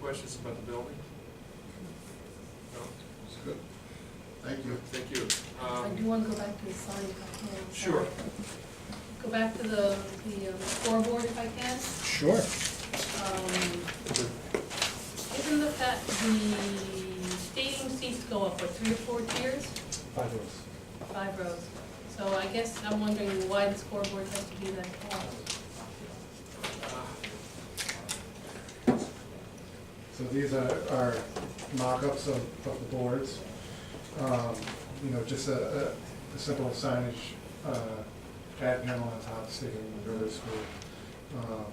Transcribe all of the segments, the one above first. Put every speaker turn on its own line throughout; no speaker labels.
questions about the building? No?
It's good. Thank you.
Thank you.
I
Um,
do want to go back to the sign if I can. sorry.
Sure.
Go back to the, the um, scoreboard if I can.
Sure.
Um, Isn't the fact, the stadium seats go up, what, three or four tiers?
Five minutes.
Five rows. So I guess I'm wondering why the scoreboard has to be that tall.
uh,
So these are, are mock-ups of, of the boards. Um, You know, just a, a- a simple signage, uh, ad panel on top stating River School. Um,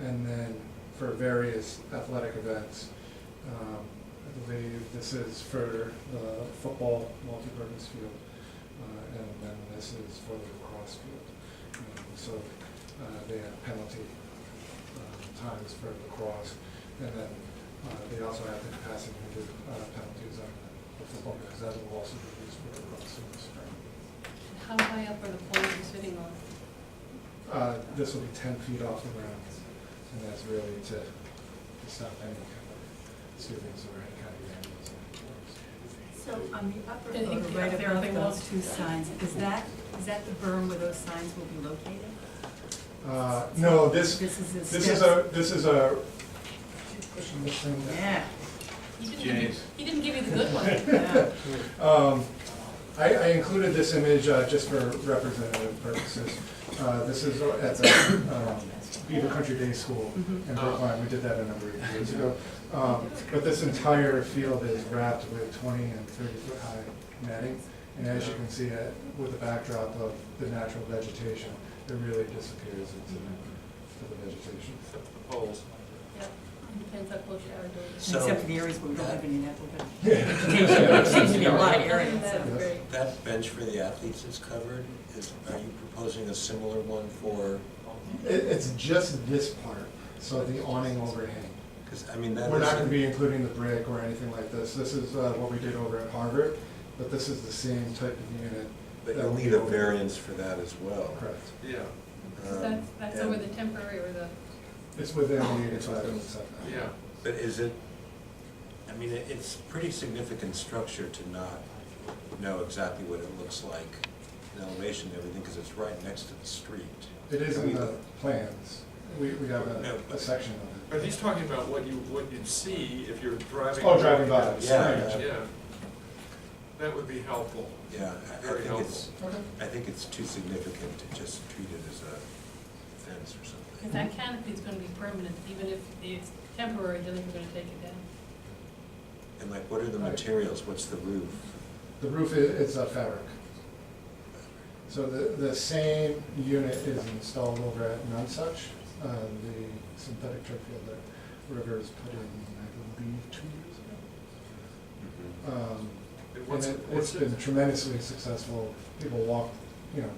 And then for various athletic events, um, I believe this is for the football multi-purpose field. uh, And then this is for the lacrosse field. Um, So uh, they have penalty uh, times for lacrosse. And then uh, they also have the capacity to do uh, penalties on the football, because that will also be used for lacrosse in the spring.
How high up are the poles you're sitting on?
Uh, This will be ten feet off the ground, and that's really to to stop any kind of students or any kind of vandalism.
So on the upper
I think
photo,
the
right
upper
above
thing
those
was-
two signs, is that, is that the berm where those signs will be located?
Uh, No, this,
This is the
this is a,
steps.
this is a, keep pushing this thing down.
Yeah,
He didn't give you-
James.
He didn't give you the good one.
yeah.
Um, I, I included this image uh, just for representative purposes. Uh, This is at the um, Beaver Country Day School in Brookline, we did that a number of years ago. Um, But this entire field is wrapped with twenty and thirty foot high netting. And as you can see, uh, with the backdrop of the natural vegetation, it really disappears into the- into the vegetation.
The polls.
Yep. Depends how close you are to it.
So-
Except for the areas where we don't have any natural vegetation,
Yeah.
which seems to be a lot of
Other than
areas,
that,
so.
it's great.
That bench for the athletes is covered, is, are you proposing a similar one for,
It, it's just this part, so the awning overhang.
because, I mean, that is.
We're not gonna be including the brick or anything like this. This is uh, what we did over at Harvard, but this is the same type of unit.
But
that
you'll
we
need a
built.
variance for that as well.
Correct.
Yeah,
So
Um,
That's, that's over
and-
the temporary or the,
It's within the eighty-five and setback.
yeah.
But is it, I mean, it- it's pretty significant structure to not know exactly what it looks like in elevation and everything, because it's right next to the street.
It is in
We-
the plans. We, we have a, a section
But
of it.
he's talking about what you, what you'd see if you're driving.
Oh, driving by.
Yeah.
Yeah. That would be helpful.
Yeah, I- I
Very
think it's,
Okay.
I think it's too significant to just treat it as a fence or something.
because that canopy's gonna be permanent, even if it's temporary, then we're gonna take it down.
And like, what are the materials? What's the roof?
The roof is, it's a fabric. So the, the same unit is installed over at Nunsuch, uh, the synthetic turf field that Rivers put in, I believe, two years ago. Um,
And
And
what's-
it,
what's
it's
it-
been tremendously successful. People walk, you know,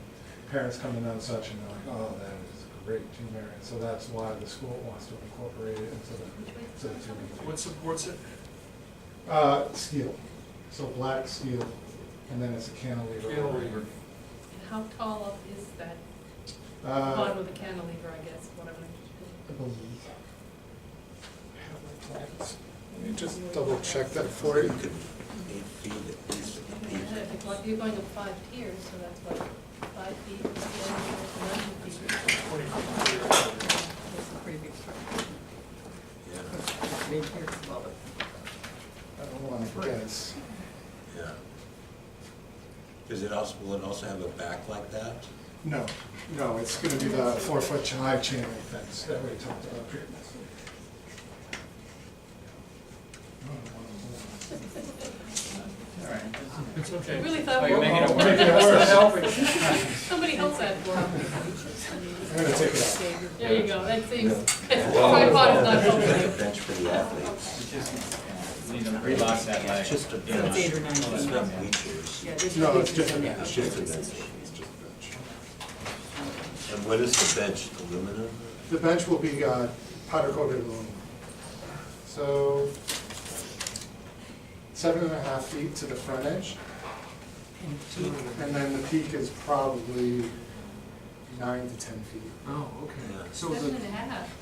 parents come in on such and they're like, oh, that is great, Two Marion. So that's why the school wants to incorporate it into the, to the Two Marion.
What supports it?
Uh, steel, so black steel, and then it's a cantilever.
Cantilever.
And how tall up is that
Uh,
bottom of the cantilever, I guess, whatever.
I believe. I have my plans. Let me just double check that for
You
you.
could eight feet at least.
If you're- You're going up five tiers, so that's what, five feet, ten feet, nine feet.
Twenty-four.
It's a pretty big structure.
Yeah,
Maybe here as well, but.
I don't want to guess.
yeah. Does it also, will it also have a back like that?
No, no, it's gonna be the four-foot high chain link fence that we talked about previously.
It's okay.
I really thought we
you're
were.
making it worse. Making it worse.
Somebody else had one.
I'm gonna take it out.
There you go, that seems,
Well,
tripod is not
it's just a
helping.
Bench for the athletes.
Need to relock that leg.
It's just a
Yeah.
bench.
eight or nine
It's
feet.
not bleachers.
Yeah, there's
No, it's
pictures
just a
on there.
It's just a bench.
It's just a bench.
And what is the bench? Aluminum?
The bench will be uh, powder coated aluminum. So seven and a half feet to the front edge,
And feet.
and then the peak is probably nine to 10 feet.
Oh, okay.
Yeah.
So the,
Seven and a half.